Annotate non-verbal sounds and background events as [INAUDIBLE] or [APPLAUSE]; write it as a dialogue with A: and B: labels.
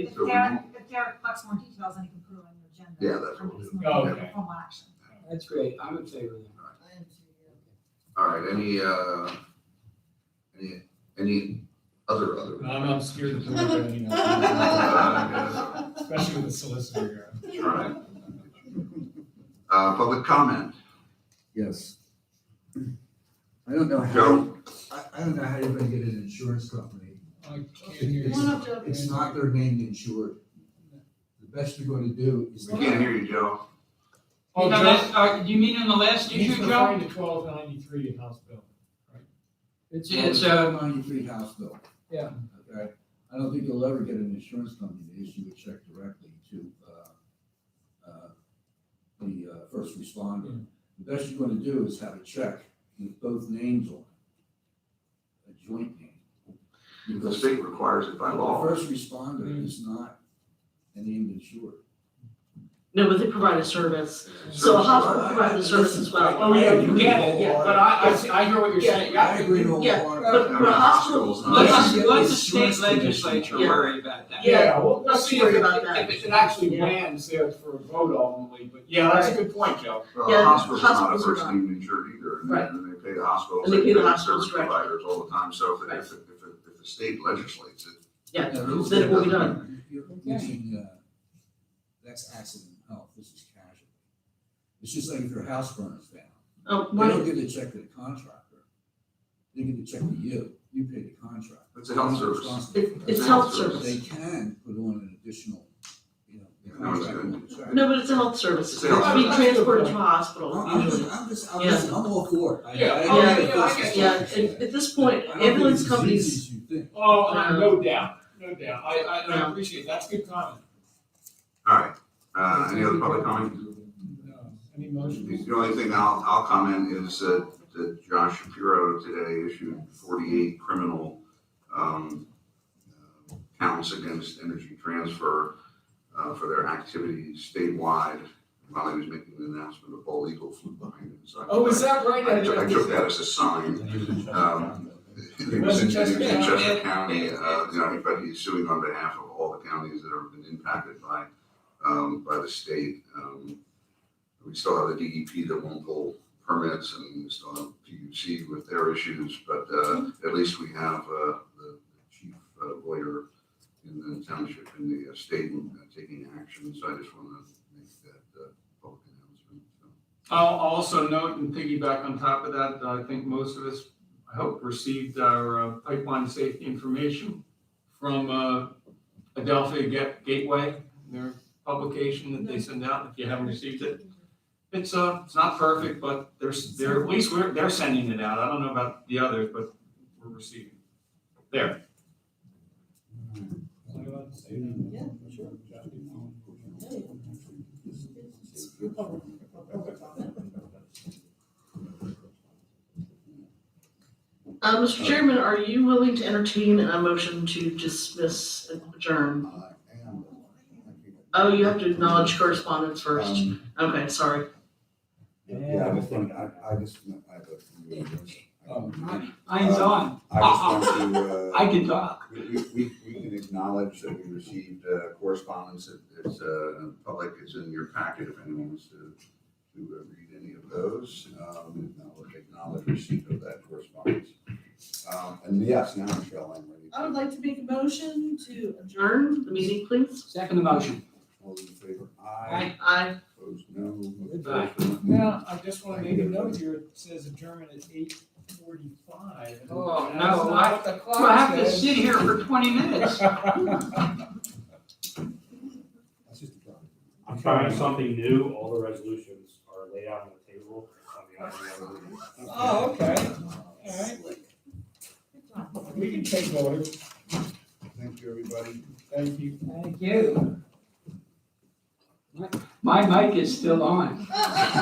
A: If
B: So we-
A: Derek, if Derek collects more details, then he can put it on your agenda.
B: Yeah, that's
A: for
B: what we'll
A: this
B: do.
A: morning,
B: Okay.
A: for formal action.
C: That's great, I'm in favor of that.
B: All right, any, uh, any, any other, other?
D: I'm, I'm scared of doing it, you
A: [LAUGHS]
B: Uh,
D: know, especially with the solicitor here.
B: yes, all right. Uh, public comment,
E: Yes. I don't know how,
B: Joe?
E: I, I don't know how you're gonna get an insurance company.
D: I can't hear
E: Come on
D: you.
F: up, Joe.
E: It's not their name insured. The best you're gonna do is.
B: we can't hear you, Joe.
D: Oh,
G: You know,
D: Joe,
G: that's- uh, you mean in the last
D: he's
G: issue, Joe?
D: referring to twelve ninety-three in House Bill.
E: It's
G: It's, uh,
E: a ninety-three house bill.
C: Yeah.
E: Okay, I don't think you'll ever get an insurance company to issue a check directly to, uh, uh, the, uh, first responder. The best you're gonna do is have a check with both names on it, a joint name.
B: The
E: Because
B: state requires it by
E: The
B: law.
E: first
H: Hmm.
E: responder is not a named insured.
H: No, but they provide a service. So a hospital provides the service as well.
E: Oh, yeah,
G: You get it, yeah, but I, I see, I hear what you're
H: Yeah,
G: saying.
E: I agree with all
H: Yeah,
E: that.
H: but-
B: hospitals, not-
G: Let us,
E: Yeah,
G: let the
E: it's
G: state
E: insurance commission.
G: legislature
H: Yeah.
G: worry about that.
H: Yeah,
D: well,
H: let's
D: see
H: worry
D: if it-
H: about that.
D: If it actually
H: Yeah.
D: lands there for a vote ultimately, but yeah, that's a good point, Joe.
B: Well,
H: Yeah,
B: hospitals are not a
H: hospitals are
B: first
H: not.
B: name insured either, and
H: Right.
B: then they pay the hospitals,
H: And they
B: they
H: pay
B: pay
H: the
B: the
H: hospitals
B: service
H: directly.
B: providers all the time, so if, it-
H: Right.
B: if, it- if, it- if the state legislates it.
H: Yeah,
E: Yeah, those-
H: then it will be done.
E: You're mixing, uh, that's accident and health, this is casualty. It's just like if your house burns down,
H: Oh,
E: they don't
H: right.
E: give the check to the contractor. They give the check to you, you pay the contractor.
B: It's a health service.
E: Responsible for that.
H: It's health service.
E: They can put on an additional, you know. the
B: No, it's
E: contractor
B: good.
E: on the check.
H: No, but it's a health service. It's
B: It's a health
H: being
D: service.
H: transported to a
E: I'm,
H: hospital
E: I'm
H: usually.
E: just, I'm just, I'm just, I'm all for it. I- I-
D: Yeah.
E: I- I-
H: Oh, yeah,
D: I get
H: Yeah, and at this point,
E: I don't think it's
H: ambulance
E: as
H: companies,
E: easy as you think.
D: Oh, I- no doubt, no doubt. I, I, I
H: Yeah.
D: appreciate, that's a good comment.
B: All right, uh, any other public comment?
D: No. Any motions?
B: The only thing I'll, I'll comment is that, that Josh Shapiro today issued forty-eight criminal, um, uh, counts against Energy Transfer, uh, for their activities statewide, while he was making an announcement of all legal flew behind him, so. I-
D: Oh, is that right?
B: I took, I took that as a sign. Um, It was in, it was in Chester County, uh, you know, but he's suing on behalf of all the counties that have been impacted by, um, by the state. Um, We still have the DEP that won't pull permits and we still have PUC with their issues, but, uh, at least we have, uh, the chief uh, lawyer in the township and the uh, state uh, taking action, so I just want to make that, uh, public announcement. So,
G: I'll I'll also note and piggyback on top of that, that I think most of us, I hope, received our uh, pipeline safety information from uh, Adelphia Ga- Gateway, their publication that they send out, if you haven't received it. It's, uh, it's not perfect, but there's, they're, at least we're, they're sending it out. I don't know about the others, but we're receiving. There.
F: Yeah, sure.
H: uh, Mr. Chairman, are you willing to entertain a motion to dismiss and adjourn?
E: I am.
H: Oh, you have to acknowledge correspondence first.
E: Um,
H: Okay, sorry.
E: Yeah, I just want, I, I just, I have a.
D: Oh,
E: I'm
G: on.
E: Um, I just want to, uh,
G: can talk.
B: We, we, we we can acknowledge that we received uh, correspondence, It- it's, uh, public, it's in your packet if anyone wants to, to uh, read any of those. Um, acknowledge- Acknowledge receipt of that correspondence. Um, and yes, now Michelle, I'm ready.
F: I would like to make a motion to
H: Adjourn the meeting, please.
G: Second motion.
B: All those in favor? Aye.
H: Aye.
B: Opposed, no.
D: Aye. Now, I just want to make a note here, it says adjournment at eight forty-five.
G: Oh, no, I- Do I have to sit here for 20 minutes?
E: That's just a problem.
I: I'm trying something new, all the resolutions are laid out on the table. on the item.
D: Oh, okay, all right. We can take orders,
E: Thank you, everybody.
D: thank you.
C: Thank you. My mic is still on.
F: adjourn.